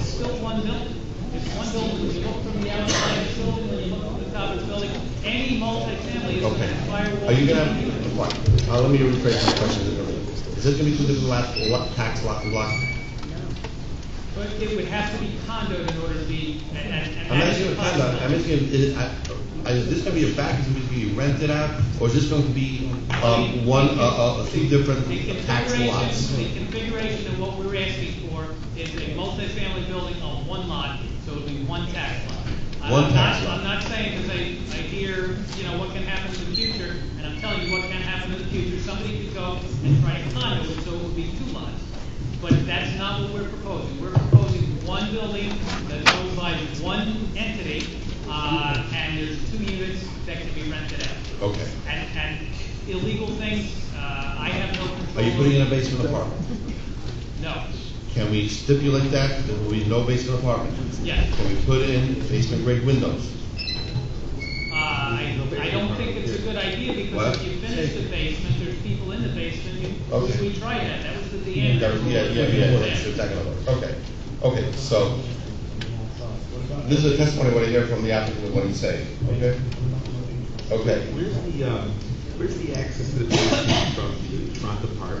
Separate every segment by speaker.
Speaker 1: still one building. It's one building, when you look from the outside, it's still, when you look from the top of the building, any multifamily is an
Speaker 2: Okay.
Speaker 1: firewall.
Speaker 2: Are you gonna, what, uh, let me rephrase my question. a little bit. Is this gonna be two different lot, lot, tax lot, lot?
Speaker 1: But it would have to be condo in order to be, and, and. and
Speaker 2: I'm
Speaker 1: that is
Speaker 2: asking you a kind
Speaker 1: possible.
Speaker 2: of, I'm asking, you, is, it- I- I- is this gonna be a back, is it gonna be rented out, or is this going to be, um, one, uh, uh, three different
Speaker 1: The
Speaker 2: tax lots?
Speaker 1: configuration, the configuration of what we're asking for is a multifamily building on one lot, so it'll be one tax lot. I'm
Speaker 2: One tax
Speaker 1: not-
Speaker 2: lot.
Speaker 1: I'm not saying, because I, I hear, you know, what can happen in the future, and I'm telling you what can happen in the future. Somebody could go and try a condo, and so it would be two lots. But that's not what we're proposing. We're proposing one building that's owned by one entity, uh, and there's two units that can be rented out.
Speaker 2: Okay.
Speaker 1: And, and illegal things, uh, I have no
Speaker 2: Are
Speaker 1: control.
Speaker 2: you putting in a basement apartment?
Speaker 1: No,
Speaker 2: Can we stipulate that, there will be no basement apartment?
Speaker 1: yes.
Speaker 2: Can we put in basement grade windows?
Speaker 1: Uh, I, I don't think it's a good idea because
Speaker 2: What?
Speaker 1: if you finish the basement, there's people in the basement. You-
Speaker 2: Okay.
Speaker 1: We tried that, that was the
Speaker 2: Yeah,
Speaker 1: DeAndre.
Speaker 2: yeah, yeah, yeah, that's exactly what I was- okay, okay, so, this is a testimony, what I hear from the applicant, and what he's saying, okay? Okay,
Speaker 3: Where's the, um, where's the access to the basement from the front Park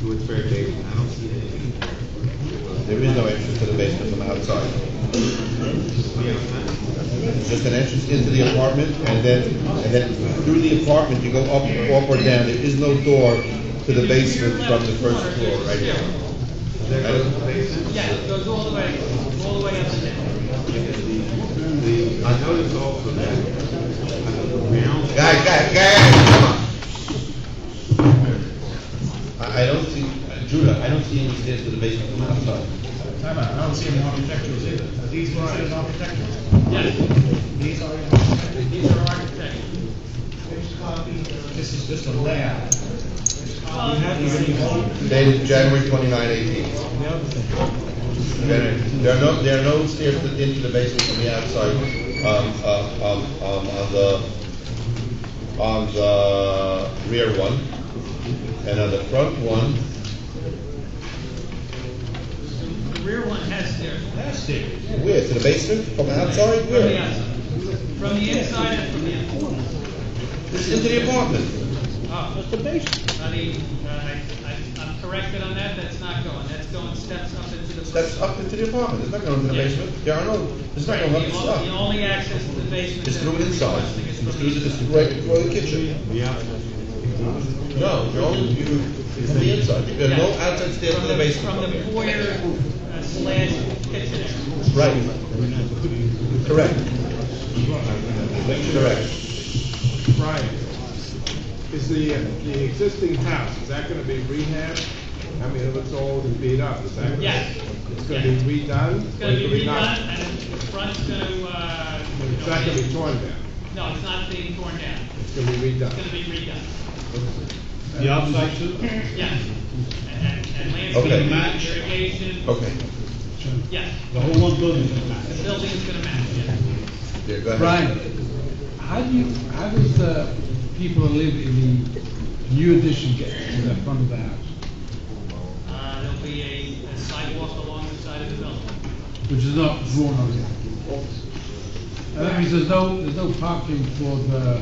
Speaker 3: to its fair bay? I don't see anything.
Speaker 2: there is no entrance to the basement from outside,
Speaker 3: We have none.
Speaker 2: It's just an entrance into the apartment, and then, and then through the apartment, you go up, up or down, there is no door to the basement from the first floor, right? here.
Speaker 3: There goes the basement.
Speaker 1: Yeah, it goes all the way, all the way up and down.
Speaker 3: The, I noticed also that, uh, the ground.
Speaker 2: Guys, guys, guys, come on. I, I don't see, Judah, I don't see any stairs to the basement from outside.
Speaker 4: Time out, I don't see any architecturals either. Are these considered architecturals?
Speaker 1: Yes,
Speaker 4: These are architectural.
Speaker 1: these are architects.
Speaker 4: This is just a layout.
Speaker 1: Well,
Speaker 2: Dated January 29, 18. January. There are no, there are no stairs to- into the basement from the outside, um, um, um, um, on the, on the rear one. And on the front one,
Speaker 1: the rear one has stairs.
Speaker 4: That's it.
Speaker 2: where, to the basement, from the outside,
Speaker 1: From the
Speaker 2: where?
Speaker 1: outside, from the inside and from the outside.
Speaker 2: It's into the apartment.
Speaker 1: Oh,
Speaker 5: That's the basement.
Speaker 1: I mean, uh, I, I, I'm corrected on that, that's not going, that's going steps up into the.
Speaker 2: That's up into the apartment, it's not going to the
Speaker 1: Yeah.
Speaker 2: basement. There are no, it's not
Speaker 1: Right, the
Speaker 2: going up the
Speaker 1: on- the
Speaker 2: stuff.
Speaker 1: only access to the basement.
Speaker 2: It's
Speaker 1: that
Speaker 2: through
Speaker 1: we're
Speaker 2: inside,
Speaker 1: requesting is
Speaker 2: it's
Speaker 1: from
Speaker 2: through,
Speaker 1: the
Speaker 2: it's
Speaker 1: inside.
Speaker 2: right for the kitchen.
Speaker 3: Yeah.
Speaker 2: No, you're only, you, from the inside, there are no
Speaker 1: Yeah.
Speaker 2: outside stairs to
Speaker 1: From
Speaker 2: the basement.
Speaker 1: From the foyer uh, slash kitchen area.
Speaker 2: Right. Correct. Correct.
Speaker 6: Brian, is the, the existing house, is that gonna be rehabbed? I mean, it looks old and beat up, is that? gonna-
Speaker 1: Yes.
Speaker 6: It's gonna be redone?
Speaker 1: It's
Speaker 6: or
Speaker 1: gonna be
Speaker 6: it's not-
Speaker 1: redone, and the front's gonna, uh. you know,
Speaker 6: It's not gonna be torn down,
Speaker 1: No, it's not being torn down,
Speaker 6: it's gonna be
Speaker 1: it's
Speaker 6: redone.
Speaker 1: gonna be redone,
Speaker 4: The outside too?
Speaker 1: yeah. And, and- and
Speaker 2: Okay.
Speaker 1: landscaping, irrigation.
Speaker 2: Okay.
Speaker 1: Yes,
Speaker 4: The whole one building is not.
Speaker 1: the building is gonna match, yes.
Speaker 2: Yeah, go ahead.
Speaker 5: Brian, how do you, how does the people who live in the new addition get to the front of the house?
Speaker 1: Uh, there'll be a- a sidewalk along the side of the building.
Speaker 5: Which is not drawn on it. That means there's no, there's no parking for the,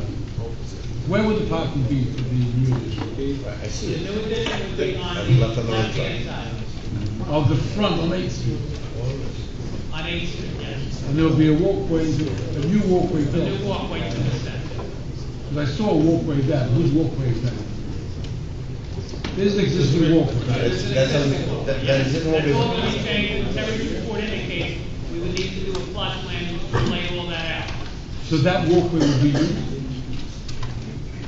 Speaker 5: where would the parking be for the new addition?
Speaker 2: I
Speaker 1: The
Speaker 2: see it.
Speaker 1: new addition would be on
Speaker 2: That's
Speaker 1: the
Speaker 2: left on the left
Speaker 1: left-hand side,
Speaker 5: Of the front on Eighth Street?
Speaker 1: on Eighth Street, yes.
Speaker 5: And there'll be a walkway, into- a new walkway
Speaker 1: The new
Speaker 5: there.
Speaker 1: walkway to the center.
Speaker 5: Because I saw a walkway there, whose walkway is that? There's an existing walkway.
Speaker 2: That's, that's, on- that, that is in all
Speaker 1: That's all
Speaker 2: business.
Speaker 1: gonna be changed, every report indicates, we would need to do a plot plan to lay all that out.
Speaker 5: So that walkway would be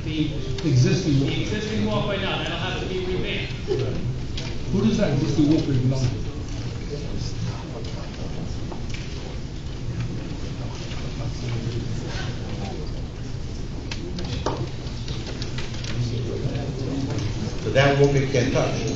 Speaker 1: The,
Speaker 5: existing
Speaker 1: the
Speaker 5: walkway.
Speaker 1: existing walkway, no, that'll have to be revamped.
Speaker 5: Who does that existing walkway belong to?
Speaker 2: So that walkway can't touch.